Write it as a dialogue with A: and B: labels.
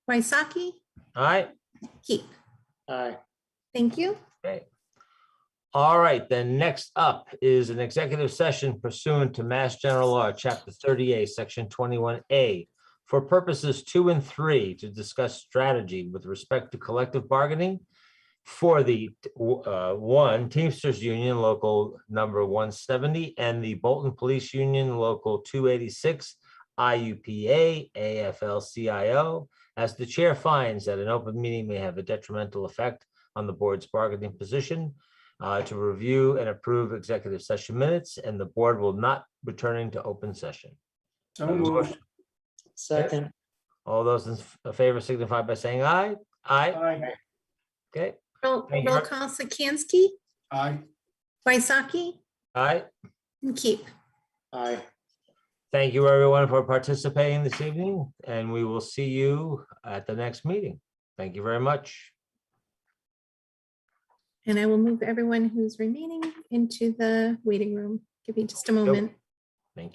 A: Waisaki,
B: All right,
A: Keep.
C: Aye.
A: Thank you.
B: great. All right, then next up is an executive session pursuant to Mass General Law, Chapter 38, Section 21A, for purposes two and three to discuss strategy with respect to collective bargaining for the, uh, one, Teamsters Union Local Number 170 and the Bolton Police Union Local 286, IUPA, AFL-CIO, as the chair finds that an open meeting may have a detrimental effect on the board's bargaining position uh, to review and approve executive session minutes, and the board will not returning to open session.
C: So moved.
D: Second,
B: All those in f- favor signify by saying aye. Aye,
C: Aye.
B: okay,
A: Roll
B: Thank you.
A: roll call Sikansky,
C: Aye.
A: Waisaki,
B: aye.
A: and Keep.
C: Aye.
B: Thank you, everyone, for participating this evening, and we will see you at the next meeting. Thank you very much.
A: And I will move everyone who's remaining into the waiting room. Give me just a moment.